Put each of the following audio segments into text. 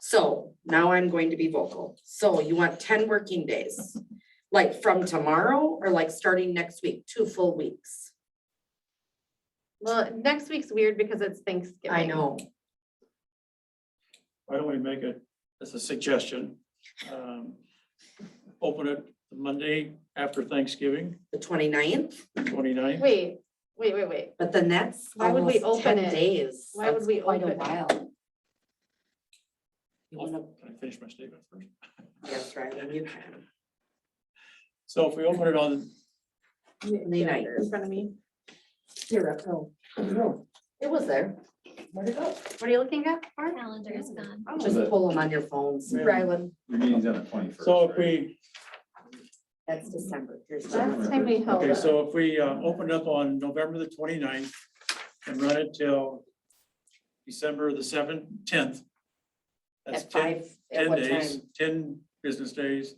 So now I'm going to be vocal. So you want ten working days? Like from tomorrow or like starting next week, two full weeks? Well, next week's weird because it's Thanksgiving. I know. Why don't we make it, as a suggestion, um, open it Monday after Thanksgiving, The 29th, twenty-ninth. Wait, wait, wait, wait. but then that's Why would we almost open ten it? days. Why would That's we quite a open it? while. You wanna- Can I finish my statement first? Yes, Riley, you can. So if we open it on, Twenty-ninth. In front of me. Here, up, Oh. no. No, Oh. It was there. Where'd it go? What are you looking at? Mark? Calendar is gone. Just pull them on your phones. Yeah. Ryland. Your meeting's on the twenty-first. so if we, That's December. Here's That's- Last time we held. okay, it. so if we uh, open up on November the 29th and run it till December the seventh, tenth. That's At ten, five, at ten what days, time? ten business days.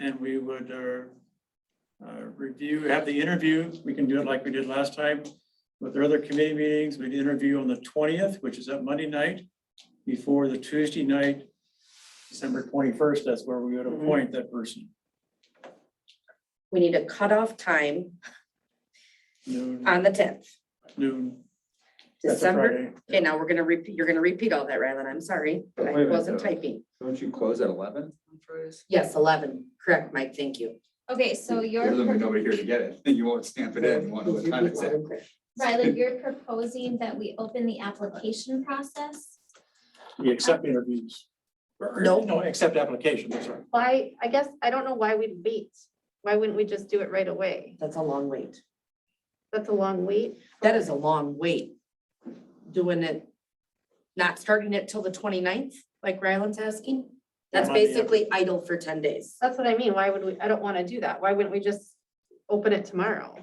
And we would uh, uh, review, have the interview. We can do it like we did last time with our other committee meetings. We'd interview on the twentieth, which is that Monday night, before the Tuesday night, December twenty-first, that's where we would Mhm. appoint that person. We need a cutoff time Noon, on the tenth, noon. That's a Uh, December. Friday. Okay, now we're gonna repeat, you're gonna repeat all that, Rylan. I'm sorry. Wait a I minute, wasn't though. typing. Don't you close at eleven on Fridays? Yes, eleven. Correct, Mike. Thank you. Okay, so There's gonna be you're, nobody here to get it, you won't stamp it in, you won't know what time it's at. Riley, you're proposing that we open the application process? We accept interviews. Or- or- No. No, accept application, that's right. Why, I guess, I don't know why we'd wait. Why wouldn't we just do it right away? That's a long wait. That's a long wait. That is a long wait. Doing it, not starting it till the 29th, like Rylan's asking. That's Yeah, Monday, yeah. basically idle for ten days. That's what I mean. Why would we, I don't want to do that. Why wouldn't we just open it tomorrow?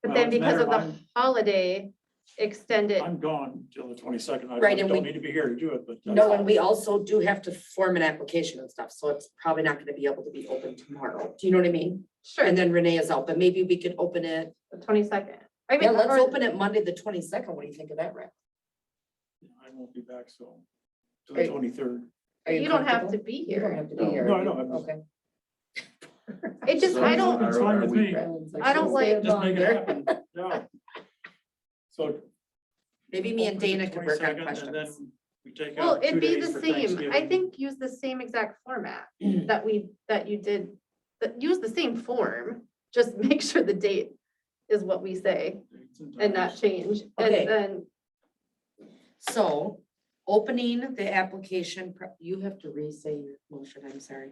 But Well, then it's a because matter of the holiday, extend it. I'm gone till the twenty-second. I Right, and don't we- need to be here to do it, but. that's- No, and we also do have to form an application and stuff, so it's probably not gonna be able to be open tomorrow. Do you know what I mean? Sure, And the then Renee is out, but maybe we could open it. twenty-second. I mean, Yeah, let's or- open it Monday, the twenty-second. What do you think of that, Rick? I won't be back, so, till Are the you- twenty-third. Are You don't have to comfortable? be You don't here. have to be here. No, I know, I'm- Okay. It just, So I don't, It's are- fine are with we- me. Rylan's I don't "Stay like- Just make it longer." happen, yeah. So. Maybe me and open the Dana could work on 22nd, and then questions. We take well, out two it'd be days the for same. I Thanksgiving. think use the same exact format that we, that you did, that use the same form. Just make sure the date is what we say and not change. And Okay. then, So, opening the application, pro- you have to re-say your motion, I'm sorry.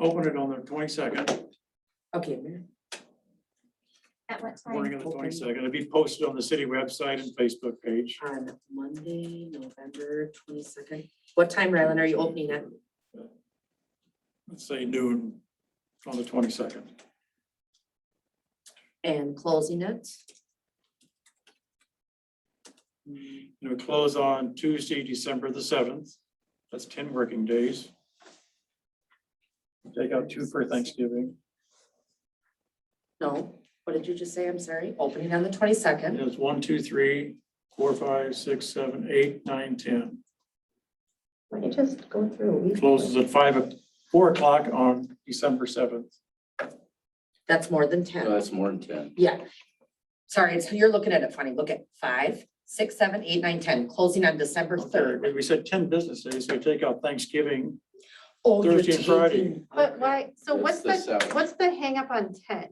Open it on the twenty-second, Okay, Mary. At what morning time? of the Open. twenty-second. It'll be posted on the city website and Facebook page. on Monday, November twenty-second. What time, Rylan, are you opening it? Let's say noon on the twenty-second. and closing it? It would close on Tuesday, December the seventh. That's ten working days. Take out two for Thanksgiving. No, what did you just say? I'm sorry. Opening on the twenty-second. It's one, two, three, four, five, six, seven, eight, nine, ten. Let me just go through. Closes at five, o- four o'clock on December seventh. That's more than No, ten. That's more than ten. Yeah. Sorry, it's, you're looking at it funny. Look at five, six, seven, eight, nine, ten, closing on December third. We said ten business days, so we take out Thanksgiving. Oh, you're Thursday and Friday. taking- but why, so That's what's the the, seventh. what's the hang up on ten?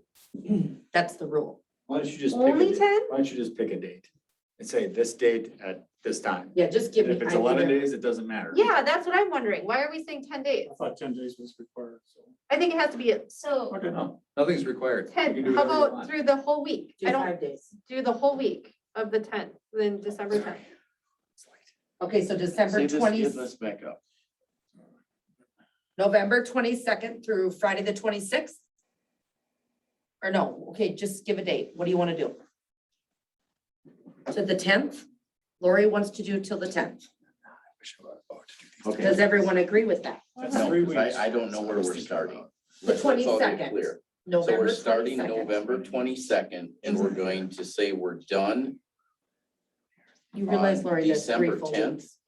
That's the rule. Why don't you just? pick a Only date? ten? Why don't you just pick a date and say this date at this time? Yeah, just give And me. If it's I eleven either- days, it doesn't matter. Yeah, that's what I'm wondering. Why are we saying ten days? I thought ten days was required, so. I think it has to be at So Okay, No, nothing's required. You can do ten. How whatever you about want. through the whole week? Do I don't five days. do the whole week of the tenth, then December tenth. Okay, so December Save this, twenty, give this back up. November twenty-second through Friday the twenty-sixth? Or no, okay, just give a date. What do you want to do? To the tenth? Lori wants to do till the tenth. Okay. Does everyone agree with that? That's three No, 'cause weeks. I, I don't know where we're starting. The Let's- let's all get 22nd. clear. So November we're starting 22nd. November twenty-second and we're going to say we're done You realize, on Lori, that's three December full 10th? weeks.